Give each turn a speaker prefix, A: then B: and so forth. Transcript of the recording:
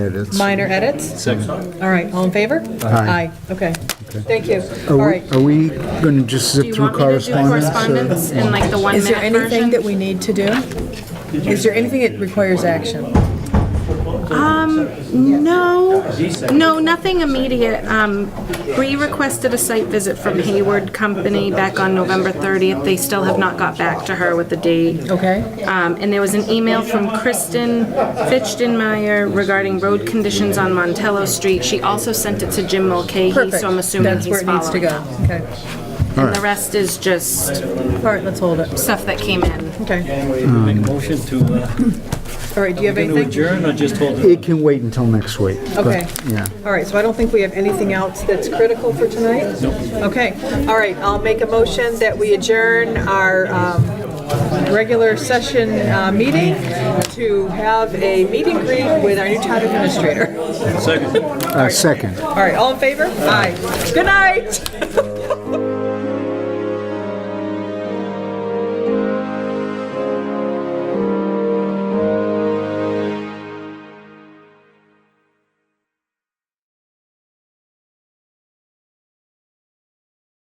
A: Edits.
B: Minor edits? Second. All right, all in favor?
A: Aye.
B: okay. Thank you. All
A: Are
B: right.
A: we, are we going to just
C: Do
A: zip
C: you
A: through
C: want me to
A: correspondence?
C: do
A: or-
C: correspondence in like the
B: Is there
C: one-minute
B: anything that
C: version?
B: we need to do? Is there anything that requires action?
C: No, Um, no, nothing immediate. Um, We requested a site visit from Hayward Company back on November 30th. They still have not got back to her with the date.
B: Okay?
C: Um, And there was an email from Kristen Fichtenmeyer regarding road conditions on Montello Street. She also sent it to Jim Mulcahy,
B: Perfect.
C: so I'm assuming
B: That's where
C: he's
B: it needs to
C: following.
B: go.
C: up.
B: Okay.
C: And the rest is just
B: All right, let's hold it.
C: stuff that came in.
B: Okay.
D: Make a motion to, uh,
B: All right, do you have
D: to
B: anything?
D: adjourn or just hold it?
A: It can wait until next week. but,
B: Okay.
A: Yeah.
B: All right, so I don't think we have anything else that's critical for tonight? Okay, all right, I'll make a motion that we adjourn our um, regular session uh, meeting to have a meet and greet with our new town administrator.
D: Second.
A: Uh, Second.
B: All right, all in favor? Aye. Good night.